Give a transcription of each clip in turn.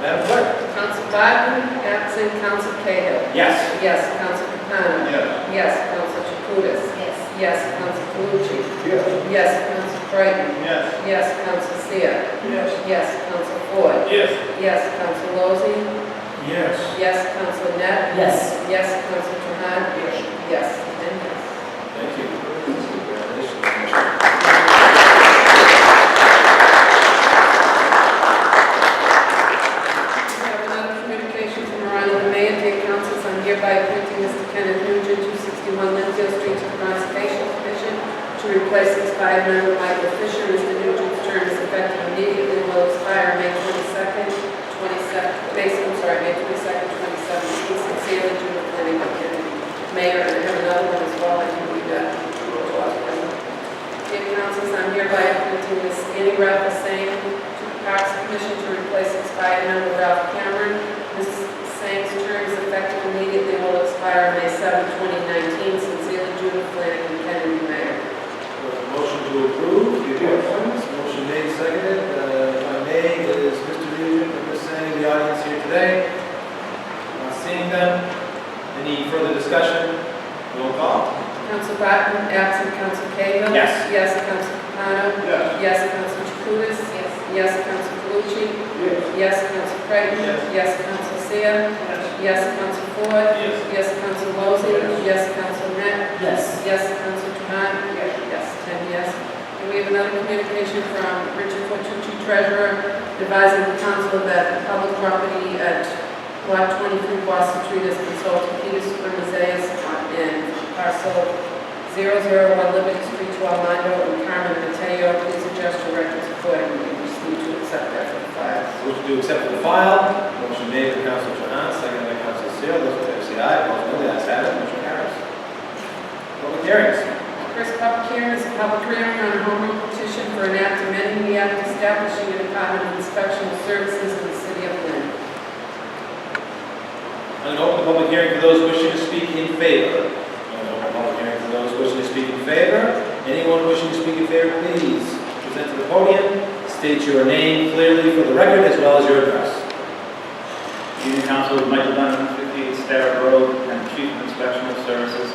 Madam Clerk? Council Biden, absent Council Cahill. Yes. Yes, Council Capano. Yes. Yes, Council Jacutis. yes, Yes, Council Calucci. Yes. Yes, Council Creighton. Yes. Yes, Council Seer. Yes. Yes, Council Ford. Yes. Yes, Council Lozey. Yes. Yes, Council Net. yes, Yes, Council Trahan. Yes, and yes. Thank you. We have another communication from Ryan the Mayor, dear councils, I'm hereby appointing Mr. Kenneth Nugent, 261 Lindsay Street to the Conservation Commission to replace expired member Michael Fisher. Mr. Nugent's term is effective immediately, will expire May 22nd, 27, May, I'm sorry, May 22nd, 2017. Sincerely, Judith Fleming, Mayor, and I have another one as well, I can read that. Dear councils, I'm hereby appointing Ms. Annie Ralph Singh to the Parks Commission to replace expired member Ralph Cameron. Ms. Singh's term is effective immediately and will expire May 7, 2019. Sincerely, Judith Flanagan, Kennedy Mayor. Motion to approve the appointments, motion made, seconded, Uh, if I may, is Mr. Nugent and Ms. Sang in the audience here today? Not seeing them, any further discussion? Roll call? Council Barton, absent Council Cahill. Yes. Yes, Council Capano. Yes. Yes, Council Jacutis. Yes. Yes, Council Calucci. Yes. Yes, Council Creighton. Yes. Council Seer. Yes, Council Ford. Yes. Yes, Council Lozey. Yes, Council Net. yes, Yes, Council Trahan. Yes, ten yes. And we have another communication from Richard Fortucci, Treasurer, advising the council that the public property at lot 23 Boston Street is controlled to Peter Supermazes and parcel 001 Liberty Street to Armando and Carmen Mateo. Please adjust your records accordingly. We just need to accept that for the files. Motion to accept the file, motion made by Council Trahan, seconded by Council Seer, those in favor say aye, opposed no, the ayes have it, motion carries. Public hearings. First public hearing is a public hearing on a home rule petition for an act amending the act establishing a Department of Inspection Services in the city of Lynn. I'm going to open the public hearing for those wishing to speak in favor. I'm going to open the public hearing for those wishing to speak in favor. Anyone wishing to speak in favor, please present to the podium, state your name clearly for the record as well as your address. Union Council, Michael Dunham, 58 Starrett Road, and Chief of Inspectional Services,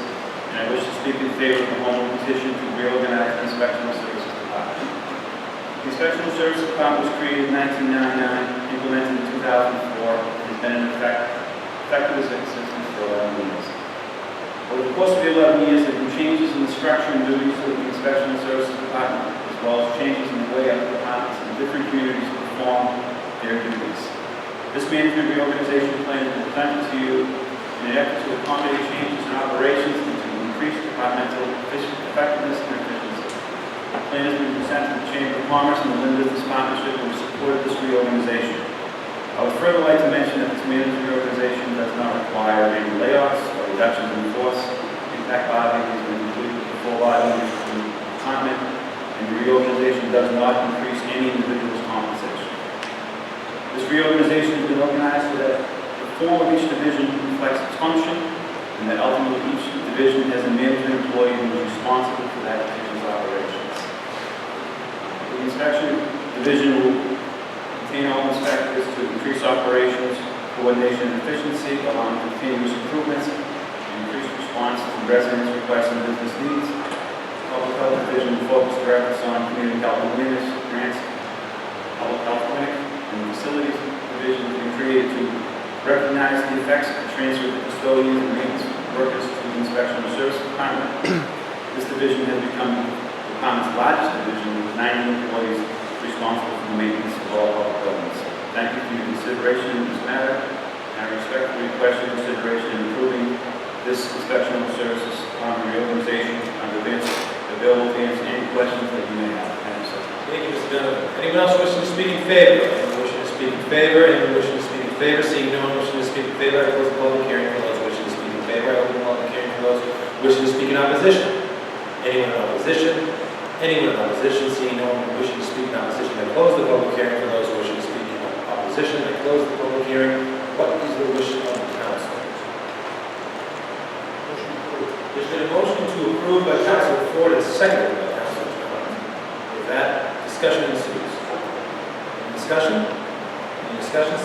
and I wish to speak in favor of the home rule petition to reorganize the Inspectional Services Department. The Inspectional Services Department was created in 1999, implemented in 2004, and has been in effect, effective as it exists for 11 years. Over the course of the 11 years, there have been changes in the structure and duties of the Inspectional Services Department, as well as changes in the way of the departments in different communities perform their duties. This management reorganization plan is presented to you in an effort to accommodate changes in operations and to increase departmental efficient- effectiveness and efficiency. The plan has been presented to the Chamber of Commerce and the Lynn Business Partnership who supported this reorganization. I would further like to mention that this management reorganization does not require any layoffs or reductions in force. In fact, bargaining has been completed with the full bargaining in the department, and the reorganization does not increase any individual's compensation. This reorganization has been organized so that the form of each division reflects its function, and that ultimately each division has a management employee who is responsible for that division's operations. The inspection division will contain all inspectors to increase operations, coordination, and efficiency, along with continuous improvements, and increased response to residents' requests and business needs. Public health division will focus their efforts on community health awareness, grants, public health clinic and facilities division has been created to recognize the effects of transfer of custodians and maintenance workers to the inspection and service department. This division has become the department's largest division with 90 employees responsible for the maintenance of all public buildings. Thank you for your consideration in this matter. and I respectfully request your consideration in approving this inspection and services department reorganization under this available to answer any questions that you may have. Thank you, sir. Thank you, Mr. Donovan. Anyone else wishing to speak in favor? Anyone wishing to speak in favor? Anyone wishing to speak in favor? Seeing no one wishing to speak in favor, I close the public hearing for those wishing to speak in favor. I open the public hearing for those wishing to speak in opposition. Anyone in opposition? Anyone in opposition? Seeing no one wishing to speak in opposition, I close the public hearing for those wishing to speak in opposition. I close the public hearing. What is the wish of the council? There's been a motion to approve by Council Ford and seconded by Council Trahan. With that, discussion ensues. Any discussion? Any discussion?